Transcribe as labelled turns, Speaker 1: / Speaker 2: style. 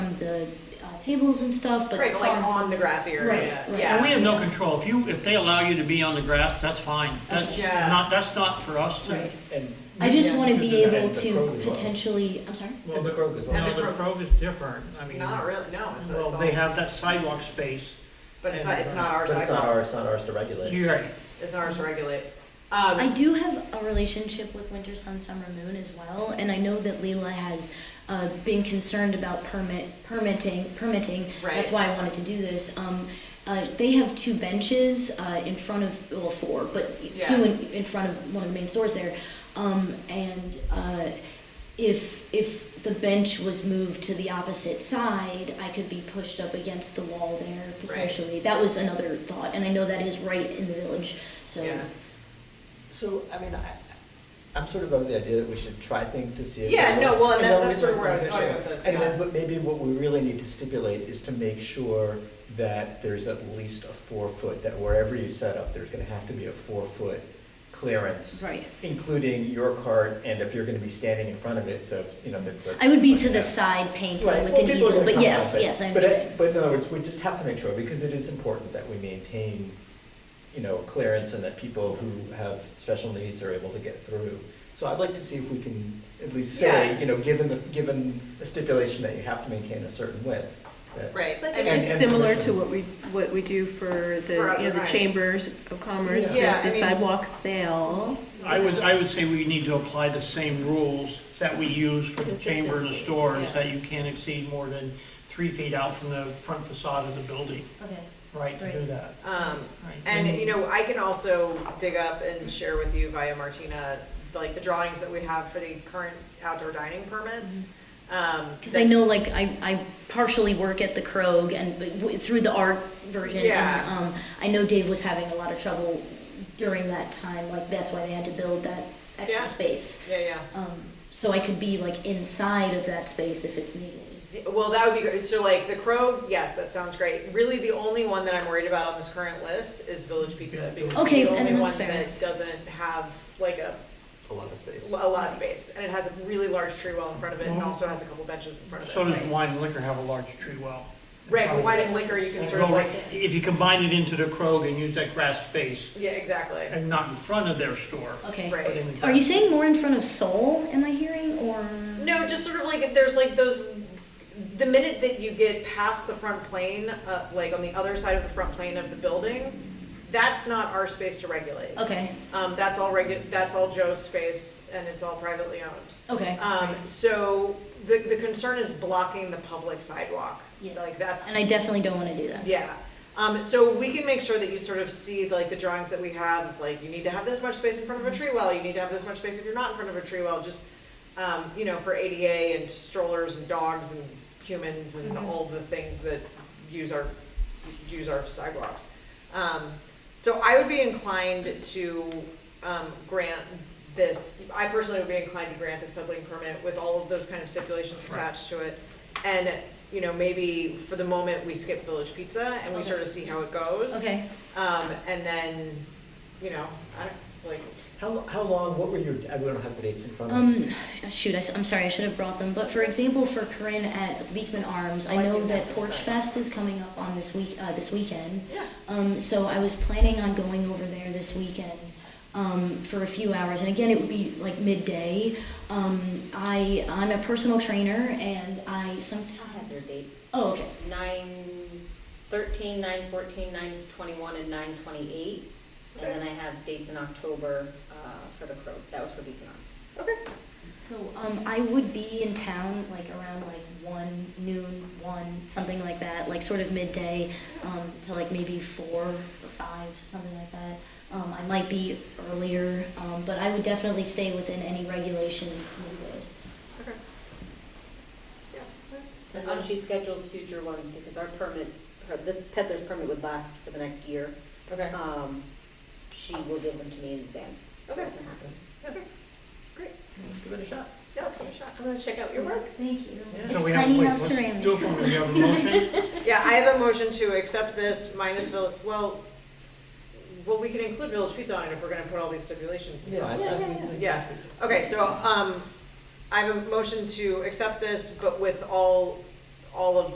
Speaker 1: the uh, tables and stuff, but.
Speaker 2: Right, but like
Speaker 1: farm-
Speaker 2: on the grassy area,
Speaker 1: Right, right.
Speaker 2: yeah.
Speaker 3: And we have no control. If you, if they allow you to be on the grass, that's fine. That's
Speaker 2: Yeah.
Speaker 3: not, that's not for us to.
Speaker 1: Right.
Speaker 4: And,
Speaker 1: I just
Speaker 2: Yeah.
Speaker 1: want to be able
Speaker 4: And the
Speaker 1: to
Speaker 4: Kroger's one.
Speaker 1: potentially, I'm sorry?
Speaker 4: and the Kroger's as
Speaker 2: And
Speaker 3: No,
Speaker 4: well.
Speaker 2: the
Speaker 3: the
Speaker 2: Kroger-
Speaker 3: Kroger's different. I mean,
Speaker 2: Not really, no, it's,
Speaker 3: well,
Speaker 2: it's
Speaker 3: they
Speaker 2: all,
Speaker 3: have that sidewalk space.
Speaker 2: but it's not, it's not ours,
Speaker 4: But
Speaker 2: to
Speaker 4: it's not
Speaker 2: call-
Speaker 4: ours, it's not ours to regulate.
Speaker 3: You're right.
Speaker 2: it's not ours to regulate. Um,
Speaker 1: I do have a relationship with Winter Sun Summer Moon as well, and I know that Leela has uh, been concerned about permit permitting permitting. That's
Speaker 2: Right.
Speaker 1: why I wanted to do this. Um, uh, they have two benches uh, in front of well four, but two
Speaker 2: Yeah.
Speaker 1: in, in front of one of the main stores there, um, and. Uh, if if the bench was moved to the opposite side, I could be pushed up against the wall there potentially. That was another thought, and I know that is right in the village, so.
Speaker 2: Yeah.
Speaker 4: So, I mean, I, I'm sort of of the idea that we should try things to see. if
Speaker 2: Yeah,
Speaker 4: they
Speaker 2: no,
Speaker 4: work.
Speaker 2: well, and that-
Speaker 4: then we
Speaker 2: that's sort of
Speaker 4: might
Speaker 2: where I was
Speaker 4: find
Speaker 2: going
Speaker 4: out.
Speaker 2: with this,
Speaker 4: And
Speaker 2: yeah.
Speaker 4: then what- maybe what we really need to stipulate is to make sure that there's at least a four foot, that wherever you set up, there's gonna have to be a four foot clearance.
Speaker 1: Right.
Speaker 4: Including your cart, and if you're gonna be standing in front of it, so, you know, if it's a.
Speaker 1: I would be to the
Speaker 4: Yeah.
Speaker 1: side painting
Speaker 4: Right,
Speaker 1: with
Speaker 4: well,
Speaker 1: an
Speaker 4: people are
Speaker 1: easel,
Speaker 4: gonna
Speaker 1: but
Speaker 4: come
Speaker 1: yes,
Speaker 4: up with-
Speaker 1: yes, I
Speaker 4: but it-
Speaker 1: understand.
Speaker 4: But in other words, we just have to make sure, because it is important that we maintain, you know, clearance and that people who have special needs are able to get through. So I'd like to see if we can at least say,
Speaker 2: Yeah.
Speaker 4: you know, given the, given the stipulation that you have to maintain a certain width. that-
Speaker 2: Right.
Speaker 5: But
Speaker 2: I
Speaker 4: And-
Speaker 2: mean,
Speaker 5: It's similar to
Speaker 4: commercial.
Speaker 5: what we, what we do for the,
Speaker 2: For
Speaker 5: you know, the
Speaker 2: other-
Speaker 5: chambers of commerce,
Speaker 2: Yeah. Yeah,
Speaker 5: does
Speaker 2: I
Speaker 5: the
Speaker 2: mean-
Speaker 5: sidewalk sale.
Speaker 3: I would, I would say we need to apply the same rules that we use for the chamber and the
Speaker 5: Consistency,
Speaker 3: stores,
Speaker 5: yeah.
Speaker 3: that you can't exceed more than three feet out from the front facade of the building,
Speaker 1: Okay,
Speaker 3: right, to do
Speaker 1: Right.
Speaker 3: that.
Speaker 2: Um,
Speaker 3: Right.
Speaker 2: and, you know, I can also dig up and share with you via Martina, like the drawings that we have for the current outdoor dining permits. Um,
Speaker 1: because Mm-hmm. I know, like, I, I partially work at the Krog and but w- through the art version.
Speaker 2: Yeah.
Speaker 1: And, um, I know Dave was having a lot of trouble during that time, like, that's why they had to build that
Speaker 2: Yeah.
Speaker 1: extra space.
Speaker 2: Yeah, yeah.
Speaker 1: Um, so I could be like inside of that space if it's needed.
Speaker 2: Well, that would be great. So like the crow, yes, that sounds great. Really, the only one that I'm worried about on this current list is Village Pizza because it's
Speaker 1: Okay,
Speaker 2: the
Speaker 1: and
Speaker 2: only
Speaker 1: that's
Speaker 2: one
Speaker 1: fair.
Speaker 2: that doesn't have like a,
Speaker 4: A lot of space.
Speaker 2: a lot of space. And it has a really large tree well in front of it and also has a couple benches in front of it.
Speaker 3: Oh. So does wine and liquor have a large tree well?
Speaker 2: Right, but wine and liquor, you can sort of
Speaker 3: Well,
Speaker 2: like,
Speaker 3: If you combine it into the Kroger and use that grass space,
Speaker 2: yeah, exactly.
Speaker 3: and not in front of their store.
Speaker 1: Okay.
Speaker 2: Right.
Speaker 3: but in the
Speaker 1: Are you saying more in front of Seoul, am I hearing, or?
Speaker 2: No, just sort of like, if there's like those, the minute that you get past the front plane, uh, like on the other side of the front plane of the building, that's not our space to regulate.
Speaker 1: Okay,
Speaker 2: Um, that's all regu, that's all Joe's space and it's all privately owned.
Speaker 1: okay.
Speaker 2: Um, so the, the concern is blocking the public sidewalk.
Speaker 1: Yeah.
Speaker 2: Like that's.
Speaker 1: And I definitely don't want to do that.
Speaker 2: Yeah, um, so we can make sure that you sort of see like the drawings that we have, like you need to have this much space in front of a tree well, you need to have this much space if you're not in front of a tree well, just, um, you know, for ADA and strollers and dogs and humans and all the things that use our, use our sidewalks. Um, so I would be inclined to, um, grant this, I personally would be inclined to grant this peddling permit with all of those kind of stipulations
Speaker 3: Right.
Speaker 2: attached to it. And, you know, maybe for the moment, we skip Village Pizza and we
Speaker 1: Okay.
Speaker 2: sort of see how it goes.
Speaker 1: Okay.
Speaker 2: Um, and then, you know, I don't, like,
Speaker 4: How, how long, what were your, I don't have the dates in front of me.
Speaker 1: Um, shoot, I, am sorry, I should have brought them, but for example, for Corinne at Beekman Arms, I
Speaker 2: Oh, I
Speaker 1: know
Speaker 2: think
Speaker 1: that
Speaker 2: that's
Speaker 1: Porch
Speaker 2: right.
Speaker 1: Fest is coming up on this week, uh, this weekend.
Speaker 2: yeah.
Speaker 1: Um, so I was planning on going over there this weekend um, for a few hours, and again, it would be like midday. Um, I I'm a personal trainer, and I
Speaker 6: have their
Speaker 1: sometimes.
Speaker 6: dates.
Speaker 1: Oh, okay.
Speaker 6: Nine thirteen, nine fourteen, nine twenty-one, and nine twenty-eight. And then I have dates in October uh, for the Crow. That was for Beacon Arms.
Speaker 2: Okay,
Speaker 1: So um, I would be in town like around like one noon, one something like that, like sort of midday um, to like maybe four or five, something like that. Um, I might be earlier, um, but I would definitely stay within any regulations needed.
Speaker 2: okay. Yeah. okay.
Speaker 6: And then she schedules future ones because our permit, her, this peddler's permit would last for the next year.
Speaker 2: Okay.
Speaker 6: Um, She will give them to me in advance. so
Speaker 2: Okay.
Speaker 6: it can happen.
Speaker 2: Okay, great.
Speaker 4: Let's give it a shot.
Speaker 2: Yeah, let's give it a shot.
Speaker 6: I'm gonna check out your work.
Speaker 1: Thank you.
Speaker 3: So
Speaker 1: It's
Speaker 3: we have-
Speaker 1: tiny
Speaker 3: wait,
Speaker 1: house
Speaker 3: let's
Speaker 1: ceramics.
Speaker 3: Do it for me, we have a motion?
Speaker 2: Yeah, I have a motion to accept this minus Village, well, well, we can include Village Pizza on it if we're gonna put all these stipulations.
Speaker 4: Yeah, I- I
Speaker 1: Yeah,
Speaker 4: think-
Speaker 1: yeah,
Speaker 4: think
Speaker 2: Yeah,
Speaker 4: that's reasonable.
Speaker 2: okay, so, um, I have a motion to accept this, but with all, all of